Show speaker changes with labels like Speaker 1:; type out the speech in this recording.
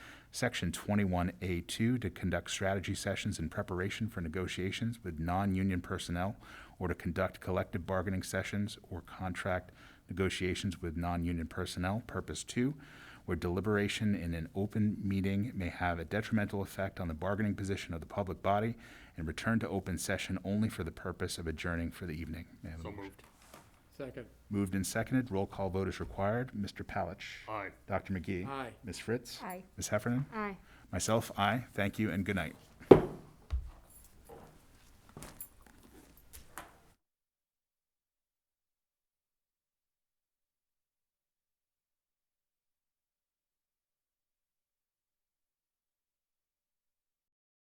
Speaker 1: Section 21A2, to conduct strategy sessions in preparation for negotiations with non-union personnel or to conduct collective bargaining sessions or contract negotiations with non-union personnel. Purpose two, where deliberation in an open meeting may have a detrimental effect on the bargaining position of the public body and return to open session only for the purpose of adjourning for the evening. May I have a
Speaker 2: So
Speaker 1: motion?
Speaker 2: moved.
Speaker 3: Second.
Speaker 1: Moved and seconded. Roll call vote is required. Mr. Palach.
Speaker 2: Aye.
Speaker 1: Dr. McGee.
Speaker 3: Aye.
Speaker 1: Ms. Fritz.
Speaker 4: Aye.
Speaker 1: Ms. Heffernan.
Speaker 4: Aye.
Speaker 1: Myself, aye. Thank you and good night.